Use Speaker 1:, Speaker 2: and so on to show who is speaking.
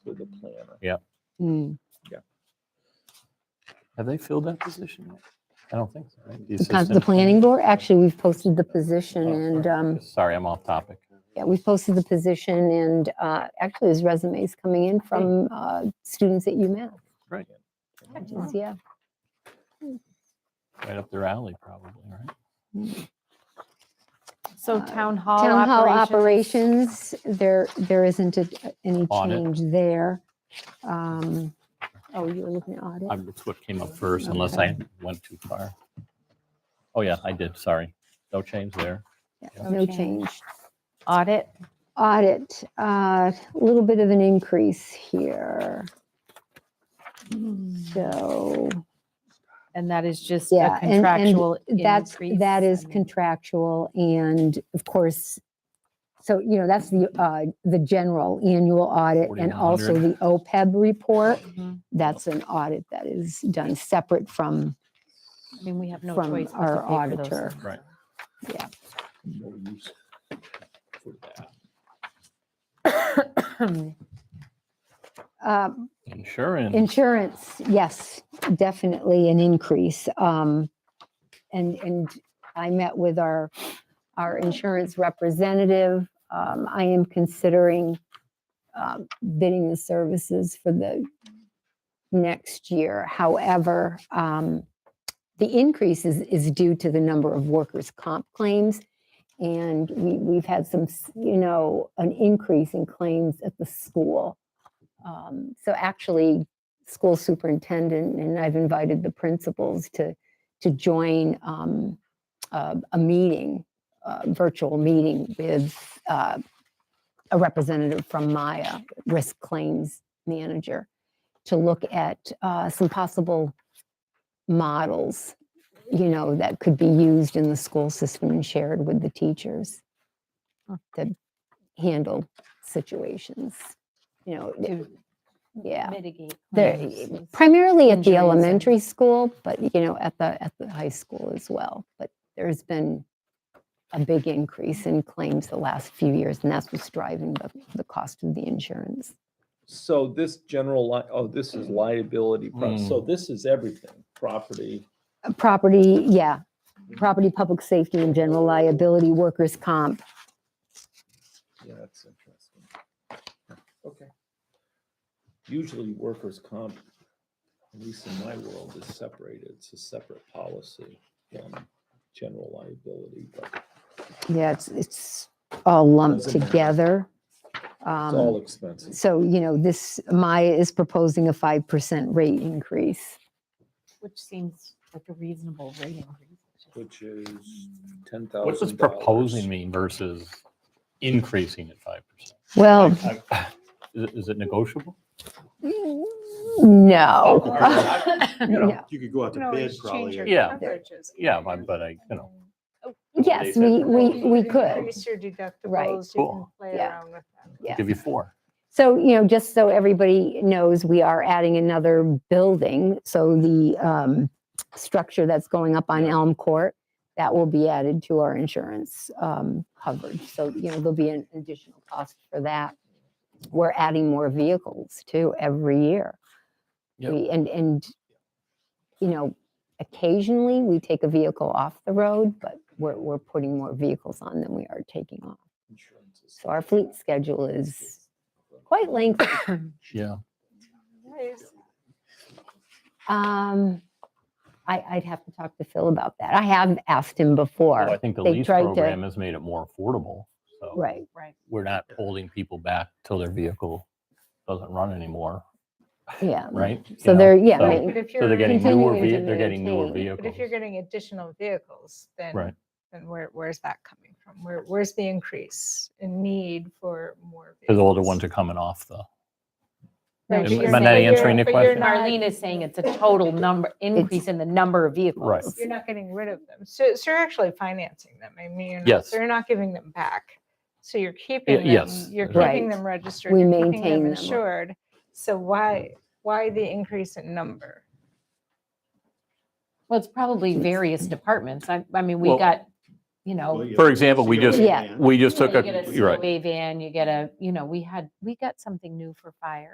Speaker 1: definitely ever.
Speaker 2: Mm.
Speaker 3: Have they filled that position yet? I don't think so. right? The
Speaker 2: The con- The
Speaker 3: assistant-
Speaker 2: planning board, actually, we've posted the position
Speaker 3: Oh,
Speaker 2: and,
Speaker 3: sorry.
Speaker 2: um,
Speaker 3: Sorry, I'm off topic.
Speaker 2: yeah, we've posted the position and, uh, actually there's resumes coming in from, uh, students at UMass.
Speaker 3: Right.
Speaker 2: which is- Yeah.
Speaker 3: Right up their alley, probably, right?
Speaker 4: So
Speaker 2: Uh,
Speaker 4: town hall
Speaker 2: Town hall
Speaker 4: operations.
Speaker 2: operations, there, there isn't a- any
Speaker 3: Audit.
Speaker 2: change there. Um, oh, you were looking at audit?
Speaker 3: I'm- It's what came up first, unless I went too far. Oh, yeah, I did, sorry. No change there.
Speaker 2: Yeah, No change.
Speaker 4: Audit,
Speaker 2: Audit, uh, a little bit of an increase here. So
Speaker 4: and that is just
Speaker 2: Mm-hmm. Yeah,
Speaker 4: a
Speaker 2: and- and
Speaker 4: contractual
Speaker 2: that's,
Speaker 4: increase.
Speaker 2: that
Speaker 4: I
Speaker 2: is
Speaker 4: mean,
Speaker 2: contractual and of course, so, you know, that's the, uh, the general annual audit and also
Speaker 3: 4100.
Speaker 2: the OPEB report.
Speaker 4: mhm.
Speaker 2: That's an audit that is done separate from,
Speaker 4: I mean, we have no
Speaker 2: from
Speaker 4: choice but
Speaker 2: our
Speaker 4: to pay for those
Speaker 2: auditor.
Speaker 4: things.
Speaker 3: Right. Mm-hmm.
Speaker 2: uh,
Speaker 3: Insurance,
Speaker 2: Insurance, yes, definitely an increase. Um, and, and I met with our, our insurance representative. Um, I am considering, um, bidding the services for the next year. However, um, the increase is, is due to the number of workers' comp claims. And we, we've had some, s- you know, an increase in claims at the school. Um, So actually, school superintendent, and I've invited the principals to, to join um, uh, a meeting, a virtual meeting with uh, a representative from Maya, Risk Claims Manager, to look at uh, some possible models, you know, that could be used in the school system and shared with the teachers to handle situations, you know,
Speaker 4: To
Speaker 2: yeah.
Speaker 4: mitigate.
Speaker 2: They're
Speaker 4: claims
Speaker 2: y-
Speaker 4: is-
Speaker 2: primarily at
Speaker 4: injuries
Speaker 2: the
Speaker 4: and-
Speaker 2: elementary school, but you know, at the, at the high school as well. But there's been a big increase in claims the last few years, and that's what's driving the, the cost of the insurance.
Speaker 1: So this general, li- oh, this is liability, pro-
Speaker 3: Hmm.
Speaker 1: so this is everything, property.
Speaker 2: Uh, Property, yeah, property, public safety and general liability, workers' comp.
Speaker 1: Yeah, that's interesting. Okay. Usually workers' comp, at least in my world, is separated. It's a separate policy from general liability, but
Speaker 2: Yeah, it's, it's all lumped
Speaker 1: Doesn't matter.
Speaker 2: together.
Speaker 1: it's
Speaker 2: Um,
Speaker 1: all expenses.
Speaker 2: So, you know, this, Maya is proposing a 5% rate increase.
Speaker 4: Which seems like a reasonable rate increase.
Speaker 1: Which is ten thousand.
Speaker 3: what does proposing mean versus increasing at five
Speaker 2: Well,
Speaker 3: percent? Is it negotiable?
Speaker 2: no.
Speaker 3: Okay. You know,
Speaker 2: No.
Speaker 5: You could go out
Speaker 6: can
Speaker 5: to bid
Speaker 6: always change
Speaker 5: probably.
Speaker 6: your
Speaker 5: or-
Speaker 3: Yeah.
Speaker 6: coverages.
Speaker 3: Yeah, but but I, you know,
Speaker 2: Yes,
Speaker 5: They said
Speaker 2: we, we,
Speaker 6: You
Speaker 2: we
Speaker 6: can
Speaker 2: could,
Speaker 6: Increase your
Speaker 2: Right.
Speaker 6: deductibles, you can
Speaker 3: Cool.
Speaker 6: play
Speaker 2: Yeah.
Speaker 6: around with them.
Speaker 2: yeah.
Speaker 3: give you four.
Speaker 2: So, you know, just so everybody knows, we are adding another building. So the um, structure that's going up on Elm Court, that will be added to our insurance um, coverage. So, you know, there'll be an additional cost for that. We're adding more vehicles too every year.
Speaker 3: Yep.
Speaker 2: We- And, and, you know, occasionally we take a vehicle off the road, but we're, we're putting more vehicles on than we are taking off. So our fleet schedule is quite lengthy.
Speaker 3: Yeah.
Speaker 6: Nice.
Speaker 2: Um, I, I'd have to talk to Phil about that. I have asked him
Speaker 3: Well, I
Speaker 2: before.
Speaker 3: think the
Speaker 2: they
Speaker 3: lease
Speaker 2: tried to-
Speaker 3: program has made it more affordable. So
Speaker 2: Right,
Speaker 4: Right.
Speaker 3: we're not holding people back till their vehicle doesn't run anymore,
Speaker 2: yeah.
Speaker 3: right? You
Speaker 2: Mm. So
Speaker 3: know,
Speaker 2: they're, yeah,
Speaker 3: so-
Speaker 2: they-
Speaker 6: But if
Speaker 3: So they're
Speaker 6: you're,
Speaker 3: getting newer,
Speaker 2: continuing to
Speaker 3: ve- they're getting newer
Speaker 2: maintain.
Speaker 3: vehicles.
Speaker 6: but if you're getting additional vehicles,
Speaker 3: Right.
Speaker 6: then, then where, where's that coming from? Where, where's the increase in need for more?
Speaker 3: Because the older
Speaker 6: vehicles?
Speaker 3: ones are coming off the,
Speaker 6: Right,
Speaker 4: Am-
Speaker 6: but you're
Speaker 4: am I not
Speaker 6: saying-
Speaker 3: answering the
Speaker 6: but you're
Speaker 3: question?
Speaker 6: not-
Speaker 4: Marlene is saying it's a total number, increase in the number of vehicles.
Speaker 3: Right.
Speaker 6: You're not getting rid of them. So, so you're actually financing them. I mean, you're not,
Speaker 3: Yes.
Speaker 6: so you're not giving them back. So you're keeping them,
Speaker 3: yes,
Speaker 6: you're
Speaker 3: that's
Speaker 2: right.
Speaker 6: keeping them registered.
Speaker 2: We
Speaker 6: you're keeping
Speaker 2: maintain them.
Speaker 6: Insured. So why, why the increase in number?
Speaker 4: Well, it's probably various departments. I, I mean, we
Speaker 3: Well-
Speaker 4: got, you know.
Speaker 3: For example, we just-
Speaker 2: Yeah.
Speaker 3: we just
Speaker 4: you know,
Speaker 3: took a,
Speaker 4: you get
Speaker 3: you're right.
Speaker 4: COA van, you get a, you know, we had, we got something new for fire.